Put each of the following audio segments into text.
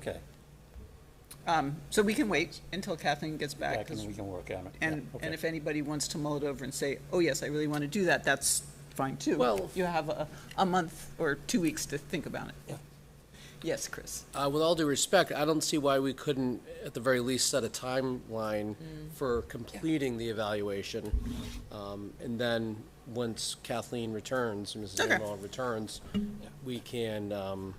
Okay, Um, so we can wait until Kathleen gets back, back 'cause- and we can work on it. Yeah, and, okay. and if anybody wants to mull it over and say, oh, yes, I really want to do that, that's fine too. Well- You have a, a month or two weeks to think about Yeah. it. Yes, Chris. Uh, with all due respect, I don't see why we couldn't, at the very least, set a timeline Mm. for completing the evaluation. Um, and then, once Kathleen returns, Mrs. Okay. Amell returns, we can, um,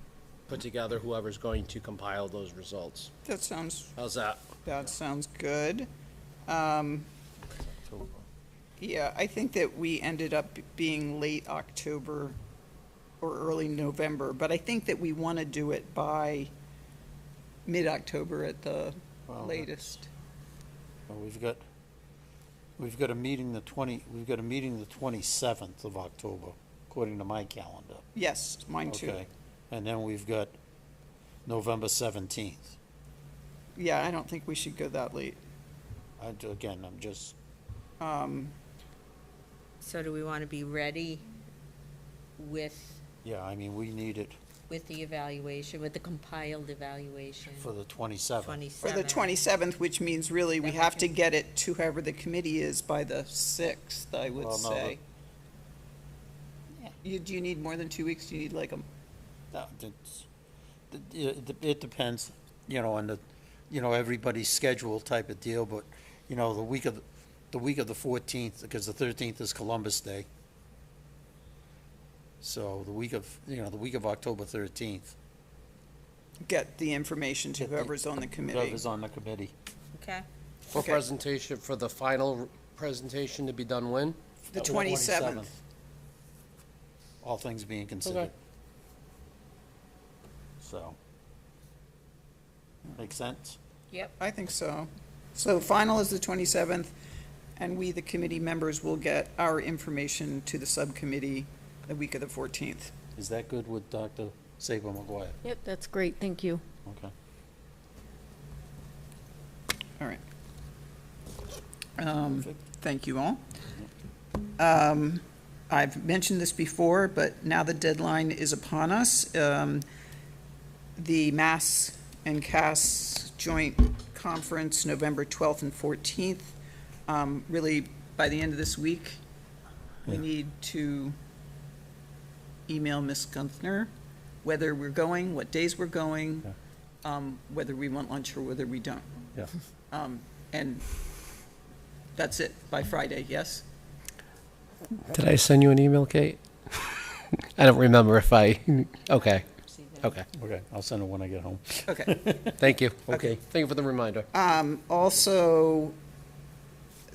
put together whoever's going to compile those results. That sounds How's that? That sounds good. Um, Yeah, I think that we ended up being late October or early November, but I think that we want to do it by mid-October at the Well, latest. Well, We've got, we've got a meeting the twenty, we've got a meeting the twenty-seventh of October, according to my calendar. Yes, mine too. Okay, and then we've got November seventeenth. Yeah, I don't think we should go that late. I, again, I'm just, Um, So do we want to be ready with, yeah, I mean, we need it with the evaluation, with the compiled evaluation? for the twenty-seventh. Or the 27? 27th, which means really we Then we have to can- get it to whoever the committee is by the 6th, I would Well, no, say. You, do you need more than two weeks? Do you need like a It it depends, you know, on the, you know, everybody's schedule type of deal, but, you know, the week of, the- the week of the fourteenth, because the thirteenth is Columbus Day. So the week of, you know, the week of October thirteenth, get the information to Get the- whoever's on the committee. whoever's on the committee. Okay, For Okay. presentation, for the final presentation to be done when? The 27th. All things being considered. So. Make sense? yep. I think so. So final is the 27th, and we, the committee members, will get our information to the subcommittee the week of the 14th. Is that good with Dr. Saber McGuire? Yep, that's great, thank you. Okay. All right. Um, Perfect. Thank you all. Um, I've mentioned this before, but now the deadline is upon us. Um, The Mass and CAS Joint Conference, November 12th and 14th. Um, Really, by the end of this week, we Yeah. need to email Ms. Gunther whether we're going, what days we're going, um, whether we want lunch or whether we don't. Um, Yeah. And that's it, by Friday, yes? Did I send you an email, Kate? I don't remember if I, okay, okay, Okay, I'll send it when I get home. Okay. thank you. Okay. Thank you for the reminder. Um, Also,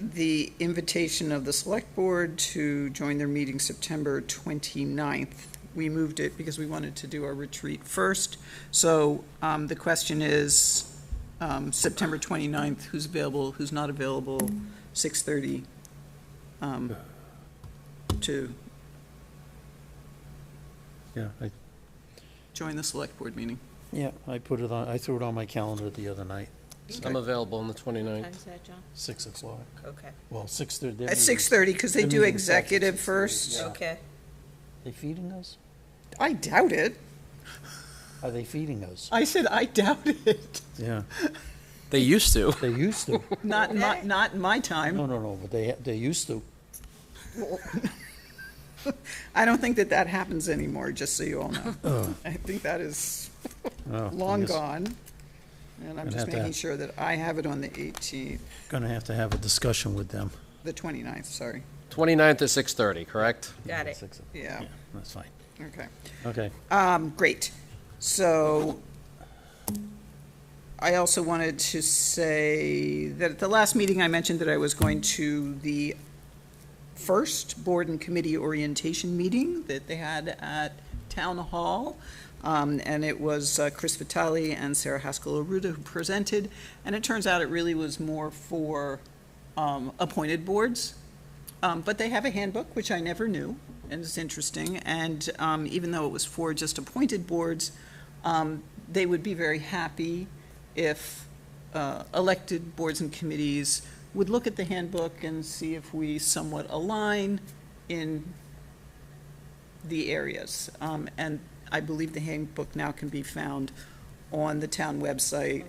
the invitation of the Select Board to join their meeting September 29th. We moved it because we wanted to do our retreat first. So um, the question is, um, September 29th, who's available, who's not available, 6:30 um, to Yeah, I, join the Select Board meeting. yeah, I put it on, I threw it on my calendar the other night, I'm available on the 29th. Time's that, John? six o'clock. Okay. Well, six thirty. At 6:30, because they Their do meeting starts at executive 6:30, first. yeah. Okay. They feeding us? I doubt it. Are they feeding us? I said I doubt it. Yeah, They used to. they used to. Not in my, not in my time. No, no, no, but they, they used to. I don't think that that happens anymore, just so you all know. I think that is Oh, long yes. gone. And I'm I'd just have to making ask. sure that I have it on the 18th, Gonna have to have a discussion with them. the 29th, sorry. 29th at 6:30, correct? Got Yeah, it. six o- Yeah, Yeah, that's fine. okay. Okay, Um, great. So I also wanted to say that at the last meeting, I mentioned that I was going to the first board and committee orientation meeting that they had at Town Hall. Um, and it was uh, Chris Vitale and Sarah Haskell Aruda who presented. And it turns out it really was more for, um, appointed boards. Um, but they have a handbook, which I never knew, and it's interesting. And um, even though it was for just appointed boards, um, they would be very happy if uh, elected boards and committees would look at the handbook and see if we somewhat align in the areas. Um, And I believe the handbook now can be found on the town website